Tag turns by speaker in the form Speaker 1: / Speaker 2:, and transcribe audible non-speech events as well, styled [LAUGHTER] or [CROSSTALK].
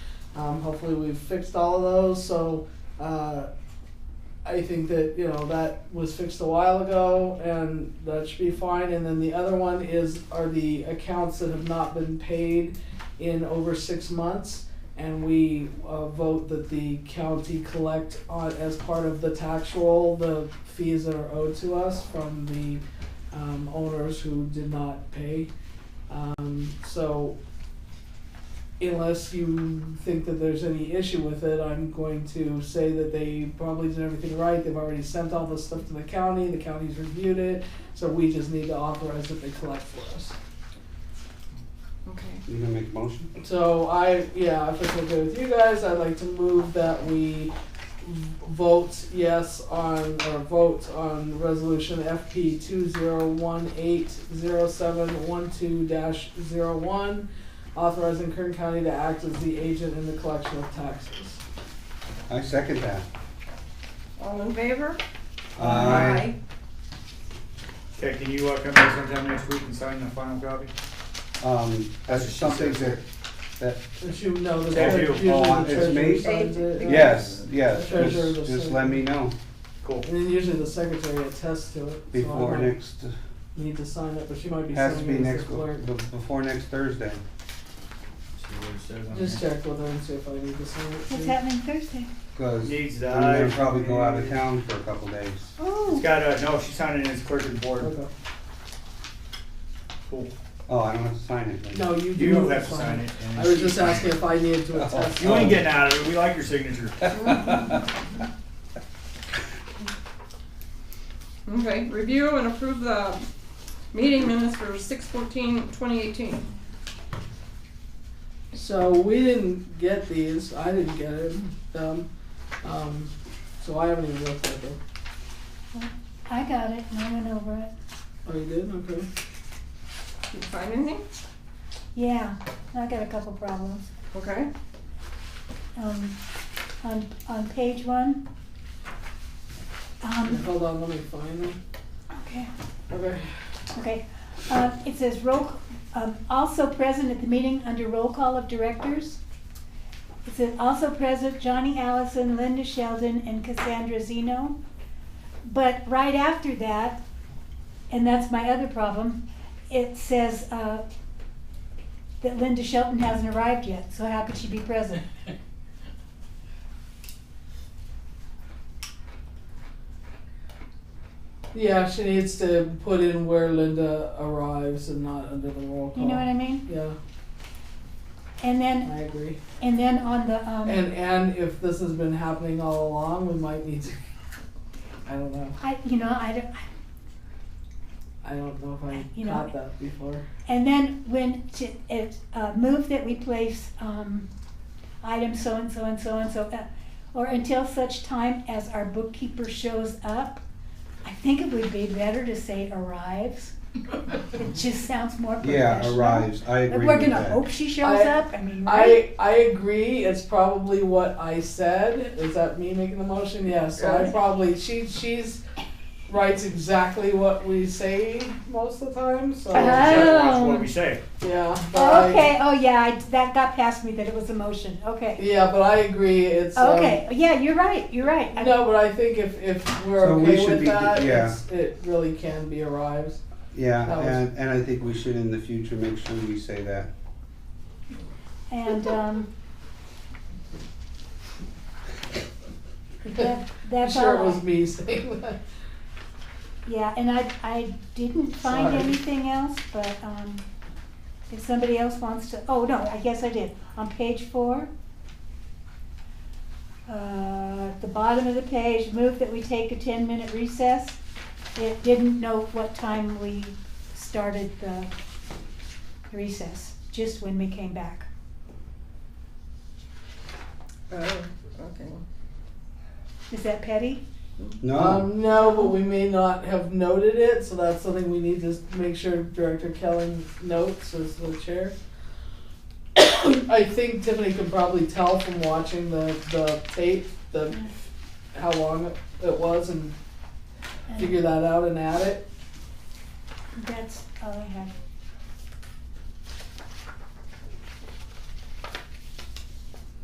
Speaker 1: Um, hopefully, we've fixed all of those. So uh, I think that you know that was fixed a while ago, and that should be fine. And then the other one is are the accounts that have not been paid in over six months, and we uh, vote that the county collect on as part of the tax roll the fees that are owed to us from the um, owners who did not pay. Um, so unless you think that there's any issue with it, I'm going to say that they probably did everything right. They've already sent all this stuff to the county, the county's reviewed it, so we just need to authorize that they collect for us.
Speaker 2: Okay.
Speaker 3: You gonna make a motion?
Speaker 1: So I, yeah, if it's okay with you guys, I'd like to move that we vote yes on, or vote on resolution FP two zero one eight zero seven one two dash zero one, authorizing Kern County to act as the agent in the collection of taxes.
Speaker 3: I second that.
Speaker 2: All in favor?
Speaker 3: Aye.
Speaker 4: Okay, can you uh, come back sometime next week and sign the final copy?
Speaker 3: Um, that's something that, that,
Speaker 1: If you know that
Speaker 4: Thank
Speaker 1: they're
Speaker 4: you.
Speaker 1: usually
Speaker 3: Oh,
Speaker 1: the
Speaker 3: it's
Speaker 1: treasurer
Speaker 3: me?
Speaker 1: signs it.
Speaker 3: yes, yes,
Speaker 1: The treasurer will
Speaker 3: just, just
Speaker 1: send
Speaker 3: let me
Speaker 1: it.
Speaker 3: know
Speaker 4: Cool.
Speaker 1: And then usually the secretary attests to it. so I
Speaker 3: before
Speaker 1: might
Speaker 3: next,
Speaker 1: Need to sign it, but she might be
Speaker 3: has to
Speaker 1: signing
Speaker 3: be
Speaker 1: it as
Speaker 3: next,
Speaker 1: the clerk.
Speaker 3: be- before next Thursday.
Speaker 4: See what it says on
Speaker 1: Just
Speaker 4: there.
Speaker 1: check with her and see if I need to sign it.
Speaker 5: What's
Speaker 1: too.
Speaker 5: happening Thursday?
Speaker 3: Cause
Speaker 4: Needs
Speaker 3: I'm
Speaker 4: the
Speaker 3: gonna
Speaker 4: eye.
Speaker 3: probably go out of town for a couple days.
Speaker 4: It's
Speaker 5: Oh,
Speaker 4: got a, no, she's signing as clerk of the board.
Speaker 1: Okay.
Speaker 4: Cool.
Speaker 3: Oh, I don't have to sign it. then.
Speaker 1: No, you do.
Speaker 4: You don't have to sign it. and
Speaker 1: I was
Speaker 4: she
Speaker 1: just
Speaker 4: signs
Speaker 1: asking
Speaker 4: it.
Speaker 1: if I needed
Speaker 3: Oh.
Speaker 1: to attest.
Speaker 4: You ain't getting out of it. We like your signature.
Speaker 2: Okay, review and approve the meeting minutes for six fourteen twenty eighteen.
Speaker 1: So we didn't get these, I didn't get it, um, um, so I haven't even looked at them.
Speaker 5: I got it and I went over it.
Speaker 1: Oh, you did, okay.
Speaker 2: Did you find anything?
Speaker 5: Yeah, I got a couple problems.
Speaker 2: Okay.
Speaker 5: Um, on, on page one. Um,
Speaker 1: Hold on, let me find them.
Speaker 5: okay,
Speaker 1: Okay,
Speaker 5: okay. Uh, it says roll, um, also present at the meeting under roll call of directors. It says also present Johnny Allison, Linda Sheldon, and Cassandra Zeno. But right after that, and that's my other problem, it says, uh, that Linda Shelton hasn't arrived yet, so how could she be present?
Speaker 1: yeah, she needs to put in where Linda arrives and not under the roll call.
Speaker 5: You know what I mean?
Speaker 1: Yeah,
Speaker 5: And then,
Speaker 1: I agree.
Speaker 5: and then on the, um,
Speaker 1: And, and if this has been happening all along, we might need to, [LAUGHS] I don't know,
Speaker 5: I, you know, I don't,
Speaker 1: I don't know
Speaker 5: You
Speaker 1: if I
Speaker 5: know-
Speaker 1: caught that before.
Speaker 5: and then when to, it, uh, move that we place, um, item so and so and so and so, uh, or until such time as our bookkeeper shows up, I think it would be better to say arrives. It just sounds more
Speaker 3: Yeah,
Speaker 5: professional.
Speaker 3: arrives, I
Speaker 5: Like,
Speaker 3: agree
Speaker 5: we're
Speaker 3: with
Speaker 5: gonna
Speaker 3: that.
Speaker 5: hope she shows
Speaker 1: I-
Speaker 5: up, I mean, right?
Speaker 1: I, I agree, it's probably what I said, is that me making the motion, yeah, so I
Speaker 2: Right.
Speaker 1: probably, she, she's, writes exactly what we say most of the time, so,
Speaker 4: We
Speaker 5: Uh-huh.
Speaker 4: gotta Watch what
Speaker 5: Oh.
Speaker 4: we say.
Speaker 1: yeah,
Speaker 5: Oh,
Speaker 1: but I,
Speaker 5: Okay, oh yeah, I, that got past me that it was a motion, okay.
Speaker 1: yeah, but I agree, it's, um,
Speaker 5: Okay, yeah, you're right, you're right. I-
Speaker 1: no, but I think if, if we're
Speaker 3: So we
Speaker 1: okay
Speaker 3: should
Speaker 1: with
Speaker 3: be-
Speaker 1: that,
Speaker 3: yeah.
Speaker 1: it's, it really can be arrives.
Speaker 3: Yeah,
Speaker 1: That was-
Speaker 3: and, and I think we should in the future make sure we say that.
Speaker 5: And um, that,
Speaker 1: I'm
Speaker 5: that's
Speaker 1: sure it
Speaker 5: all.
Speaker 1: was
Speaker 5: I-
Speaker 1: me [LAUGHS] saying that.
Speaker 5: Yeah, and I, I didn't find
Speaker 1: Sorry.
Speaker 5: anything else, but um, if somebody else wants to, oh, no, I guess I did. On page four, uh, at the bottom of the page, move that we take a ten-minute recess. It didn't know what time we started the recess, just when we came back.
Speaker 2: Oh, okay.
Speaker 5: Is that petty?
Speaker 3: No,
Speaker 1: Um, no, but we may not have noted it, so that's something we need to make sure Director Kelly notes as the chair. [COUGHS] I think Tiffany can probably tell from watching the, the tape, the, how long it- it was and figure that out and add it.
Speaker 5: That's all I have.